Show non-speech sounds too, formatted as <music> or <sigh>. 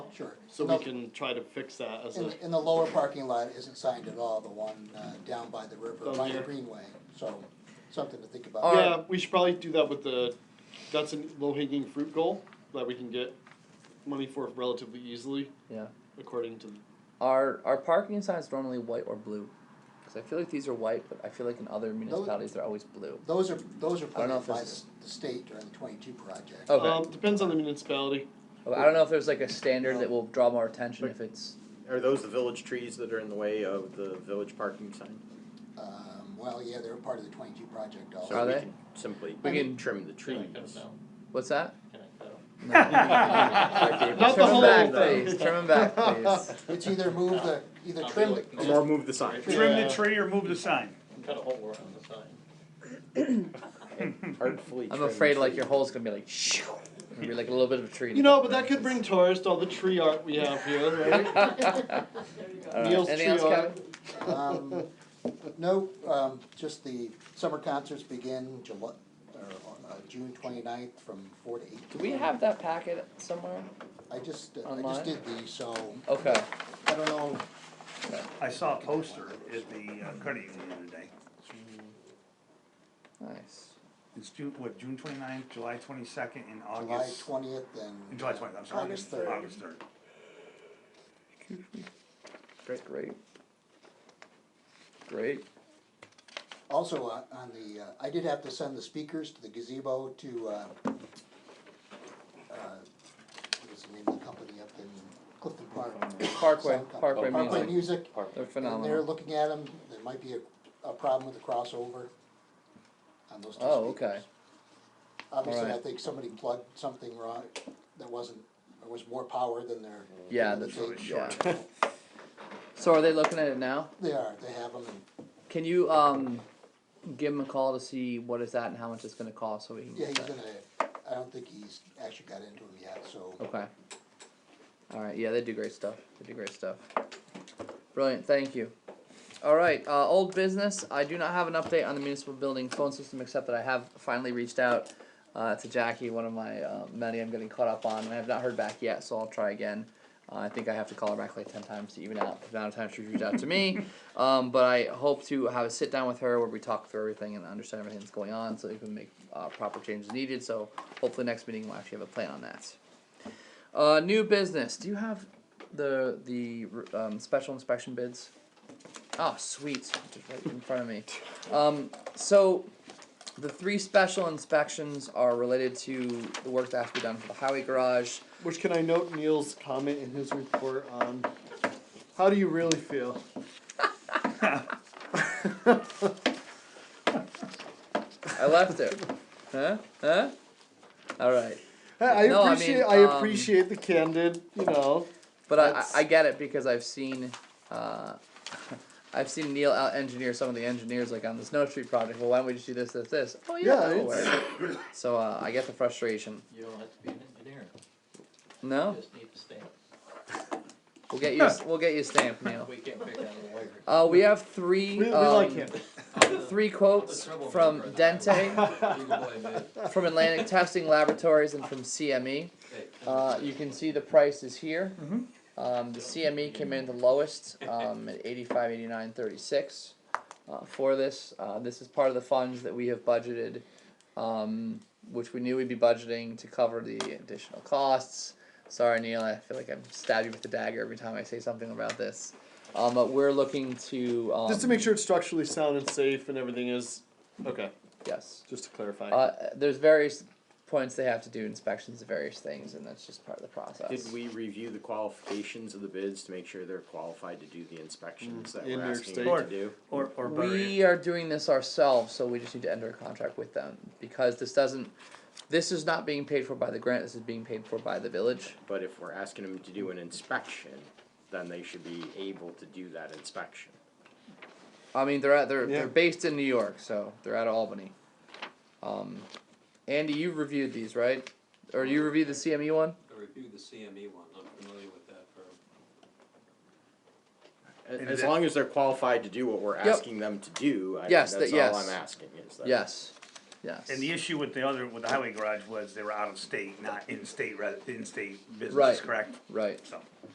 Sure. So No, we can try to fix that as In, a, the- in the lower parking lot isn't signed at all, the one, uh, down by the river, Down by the here. greenway, so, something to think about. All right. yeah, we should probably do that with the, that's a low hanging fruit goal that we can get money for relatively easily, Yeah. according to, Are are parking signs normally white or blue? Because I feel like these are white, but I feel like in other municipalities they're always blue. Those are, those are I don't know planned if by the, this Oh. the state during the twenty-two project. Okay. um, depends on the municipality. But I don't know if there's like a standard that will draw more attention if it's. Are those the village trees that are in the way of the village parking sign? Um, well, yeah, they're part of the twenty-two project also. So Are we they? can Simply, We we can- can trim the trees. What's that? Okay, <laughs> Not the trim 'em whole back, thing. please. Trim 'em <laughs> back, please. It's either move the, either trim the, Or move the sign. Trim Yeah. the tree or move the sign. Cut a hole around the sign. <laughs> Artfully I'm trim afraid like trees. your hole's gonna be like shoo. It'll be like a little bit of a tree. You know, but that could bring tourists, all the tree art we have here, right? <laughs> All right. Neil's Uh, Anything tree else, art. Kevin? um, no, um, just the summer concerts begin July, or, uh, June 29th from four to eight. <laughs> Do we have that packet somewhere? I just, I Online? just did these, so, Okay. I don't know, I saw a poster at the uh, credit union the other day. Nice. It's June, what, June twenty-ninth, July twenty-second, and July August, twentieth and and. July twentieth, I'm sorry. August third. August third. Great. Great. Great. Also, uh, on the, uh, I did have to send the speakers to the gazebo to, uh, uh, what is the name of the company up in Clifton Park? Parkway. Sound company. Parkway Parkway music. Music, They're and they're phenomenal. looking at them, there might be a, a problem with the crossover on those two speakers. Oh, okay. Obviously, I Alright. think somebody plugged something wrong, that wasn't, there was more power than there. Yeah, than that's they- yeah. So are they looking at it now? They are, they have them, and, Can you um give him a call to see what is that and how much it's gonna cost so we can yeah, get he's that? gonna, I don't think he's actually got into them yet, so. Okay. All right. Yeah, they do great stuff. They do great stuff. Brilliant. Thank you. All right. Uh, old business. I do not have an update on the municipal building phone system, except that I have finally reached out uh, to Jackie, one of my uh, many I'm getting caught up on. and I have not heard back yet, so I'll try again. Uh, I think I have to call her back like ten times to even out the amount of times she's reached out to me. Um, but I hope to have a sit down with her where we talk through everything and understand everything that's going on, so we can make uh, proper changes needed. So hopefully next meeting we'll actually have a plan on that. Uh, new business. Do you have the the um, special inspection bids? Oh, sweet! Just right in front of me. Um, so, the three special inspections are related to the work that has to be done for the highway garage. Which can I note Neil's comment in his report on how do you really feel? I <laughs> left it. huh? Huh? All right. I, I No, I mean, appreciate I, um, appreciate the candid, you know. But I, I, That's- I get it because I've seen, uh, <laughs> I've seen Neil out engineer some of the engineers like on the Snow Street project. Well, why don't we just do this, this, this? Oh yeah, Yeah, that'll it's- <coughs> work. So uh, I get the frustration. You don't have to be an engineer, No, you just need to stand. we'll get you. We'll get you a stamp, Neil. We can't figure out a wire. Uh, we have three. We, we um, like him. <laughs> Three quotes from Dente, from Atlantic Testing Laboratories, and from CME. Uh, you can see the prices here. Mm-hmm. Um, the CME came in the lowest um, at eighty-five, eighty-nine, thirty-six uh, for this. Uh, this is part of the funds that we have budgeted, um, which we knew we'd be budgeting to cover the additional costs. Sorry, Neil, I feel like I'm stabbing you with the dagger every time I say something about this. Um, but we're looking to um, <laughs> Just to make sure it's structurally sound and safe and everything is okay. Yes. Just to clarify. Uh, there's various points they have to do inspections of various things, and that's just part of the process. Did we review the qualifications of the bids to make sure they're qualified to do the inspections that in we're New York asking them Or, to do? or, or bury it. We are doing this ourselves, so we just need to enter a contract with them because this doesn't. This is not being paid for by the grant. This is being paid for by the village. But if we're asking them to do an inspection, then they should be able to do that inspection. I mean, they're at they're Yeah. they're based in New York, so they're out of Albany. Um, Andy, you reviewed these, right? Or you reviewed the CME one? I reviewed the E CME one, I'm familiar with that firm. A- And As that- long as they're qualified to do what we're asking them to do, I, Yes, that's that- yes. all I'm asking is that. Yes. yes. And the issue with the other, with the highway garage was they were out of state, not in-state, re- in-state Right. businesses, correct? Right. So.